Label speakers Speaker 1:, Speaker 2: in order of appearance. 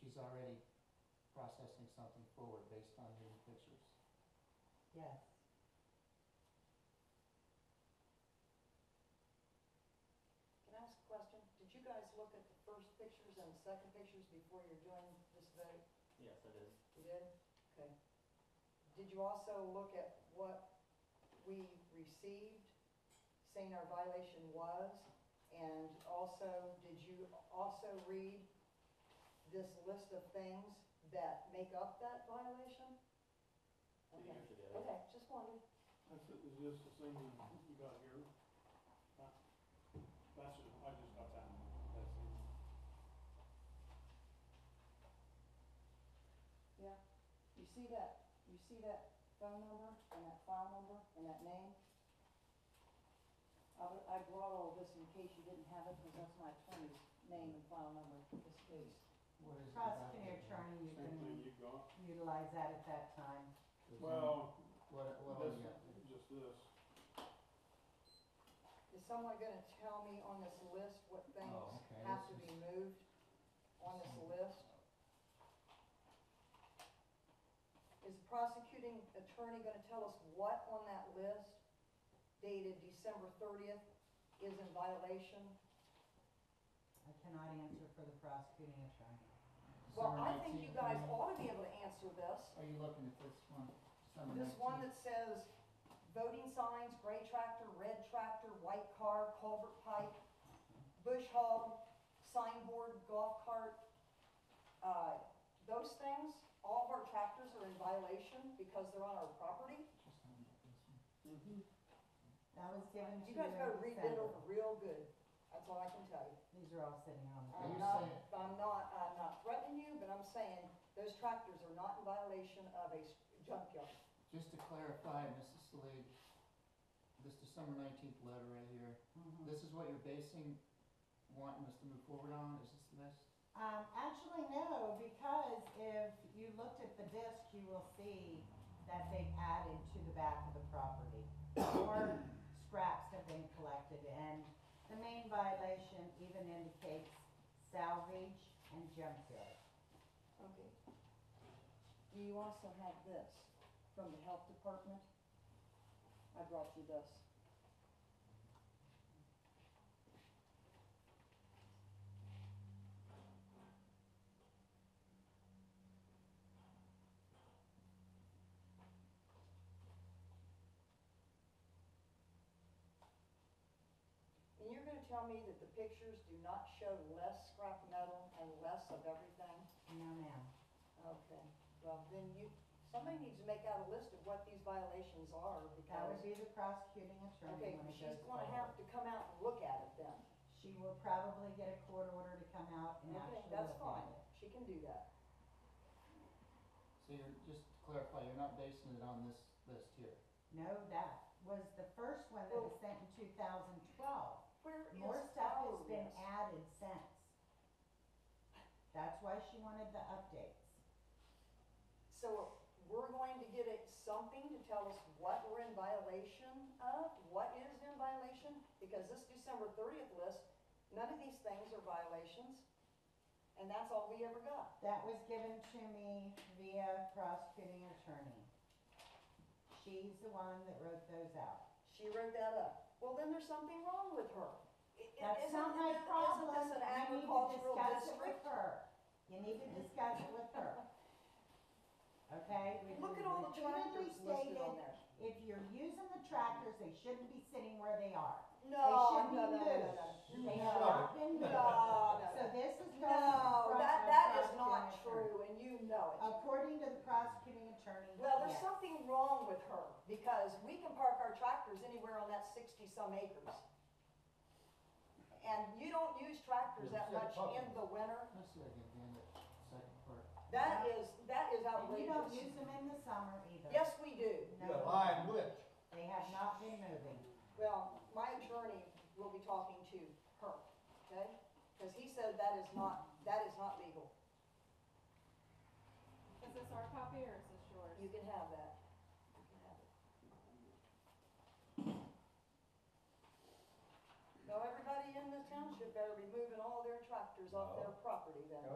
Speaker 1: she's already processing something forward based on these pictures.
Speaker 2: Yes.
Speaker 3: Can I ask a question? Did you guys look at the first pictures and the second pictures before you're doing this vote?
Speaker 4: Yes, it is.
Speaker 3: You did? Okay. Did you also look at what we received, saying our violation was? And also, did you also read this list of things that make up that violation?
Speaker 4: We
Speaker 3: Okay,
Speaker 4: usually do.
Speaker 3: okay, just wondering.
Speaker 5: That's, it was just the same one you got here. That- That's, it. I just got that one. That's it.
Speaker 3: Yeah, you see that, you see that phone number and that file number and that name? I, I brought all this in case you didn't have it, because that's my attorney's name and file number, this case.
Speaker 1: What is it about the-
Speaker 2: Prosecuting attorney, you
Speaker 5: Same thing
Speaker 2: can
Speaker 5: you got.
Speaker 2: utilize that at that time.
Speaker 5: Well,
Speaker 1: What, what,
Speaker 5: this,
Speaker 1: yeah.
Speaker 5: just this.
Speaker 3: Is someone gonna tell me on this list what
Speaker 1: Oh,
Speaker 3: things
Speaker 1: okay,
Speaker 3: have to
Speaker 1: this
Speaker 3: be
Speaker 1: is-
Speaker 3: moved on this list? Is the prosecuting attorney gonna tell us what on that list dated December thirtieth is in violation?
Speaker 2: I cannot answer for the prosecuting attorney.
Speaker 3: Well,
Speaker 1: Summer
Speaker 3: I think you
Speaker 1: 19,
Speaker 3: guys
Speaker 1: um,
Speaker 3: ought to be able to answer this.
Speaker 1: Are you looking at this one? Summer
Speaker 3: This one
Speaker 1: 19?
Speaker 3: that says voting signs, gray tractor, red tractor, white car, culvert pipe, bush hog, signboard, golf cart. Uh, those things, all of our tractors are in violation because they're on our property.
Speaker 1: Just looking at this one.
Speaker 2: That was given to
Speaker 3: You
Speaker 2: you
Speaker 3: guys better
Speaker 2: in
Speaker 3: read it
Speaker 2: December.
Speaker 3: over real good. That's all I can tell you.
Speaker 2: These are all sitting on the.
Speaker 1: Are you
Speaker 3: I'm
Speaker 2: desk.
Speaker 3: not,
Speaker 1: saying-
Speaker 3: I'm not, I'm not threatening you, but I'm saying those tractors are not in violation of a s- junkyard.
Speaker 1: Just to clarify, Mrs. Salee, this December nineteenth letter right here,
Speaker 2: Mhm.
Speaker 1: this is what you're basing, wanting us to move forward on, is this the list?
Speaker 2: Um, actually, no, because if you looked at the disc, you will see that they've added to the back of the property. More scraps have been collected, and the main violation even indicates salvage and junkyard.
Speaker 3: Okay. Do you also have this from the health department? I brought you this. And you're gonna tell me that the pictures do not show less scrap metal and less of everything?
Speaker 2: No, ma'am.
Speaker 3: Okay, well, then you, somebody needs to make out a list of what these violations are,
Speaker 2: That
Speaker 3: because,
Speaker 2: would be the prosecuting attorney
Speaker 3: okay,
Speaker 2: when it
Speaker 3: she's
Speaker 2: goes
Speaker 3: gonna
Speaker 2: forward.
Speaker 3: have to come out and look at it then.
Speaker 2: She will probably get a court order to come out
Speaker 3: Okay,
Speaker 2: and actually look at it.
Speaker 3: that's fine, she can do that.
Speaker 1: So you're, just to clarify, you're not basing it on this list here?
Speaker 2: No, that was the first one that was sent in two thousand twelve.
Speaker 3: Where Oh. is
Speaker 2: More stuff
Speaker 3: our
Speaker 2: has been
Speaker 3: list?
Speaker 2: added since. That's why she wanted the updates.
Speaker 3: So, we're going to get it, something to tell us what we're in violation of, what is in violation, because this December thirtieth list, none of these things are violations, and that's all we ever got.
Speaker 2: That was given to me via prosecuting attorney. She's the one that wrote those out.
Speaker 3: She wrote that up. Well, then there's something wrong with her. I- i-
Speaker 2: That's
Speaker 3: isn't-
Speaker 2: not my
Speaker 3: isn't
Speaker 2: problem, you
Speaker 3: this an
Speaker 2: need to
Speaker 3: agricultural
Speaker 2: discuss it with
Speaker 3: district?
Speaker 2: her. You need to discuss it with her. Okay? We-
Speaker 3: Look at
Speaker 2: we
Speaker 3: all the
Speaker 2: repeatedly
Speaker 3: tractors listed on
Speaker 2: stated,
Speaker 3: there.
Speaker 2: If you're using the tractors, they shouldn't be sitting where they are.
Speaker 3: No,
Speaker 2: should
Speaker 3: no, no, no,
Speaker 2: be
Speaker 3: no,
Speaker 2: They
Speaker 3: no.
Speaker 2: have
Speaker 3: No,
Speaker 2: not been
Speaker 3: no,
Speaker 2: moved. So
Speaker 3: no.
Speaker 2: this is going
Speaker 3: No,
Speaker 2: from
Speaker 3: that,
Speaker 2: our
Speaker 3: that is
Speaker 2: prosecuting
Speaker 3: not
Speaker 2: attorney.
Speaker 3: true, and you know
Speaker 2: According to the prosecuting attorney,
Speaker 3: it. Well, there's
Speaker 2: yes.
Speaker 3: something wrong with her, because we can park our tractors anywhere on that sixty-some acres. And you don't use tractors
Speaker 1: Yeah,
Speaker 3: that
Speaker 1: we said
Speaker 3: much
Speaker 1: parking.
Speaker 3: in the winter.
Speaker 1: Let's look at the end of the second part.
Speaker 3: That is, that is
Speaker 2: And we don't
Speaker 3: outrageous.
Speaker 2: use them in the summer either.
Speaker 3: Yes, we do.
Speaker 2: No,
Speaker 6: which?
Speaker 2: they have not been moving.
Speaker 3: Well, my attorney will be talking to her, okay? Because he said that is not, that is not legal.
Speaker 7: Is this our copy or is this yours?
Speaker 3: You can have that. You can have it. Now, everybody in this township better be moving all their tractors off their property then.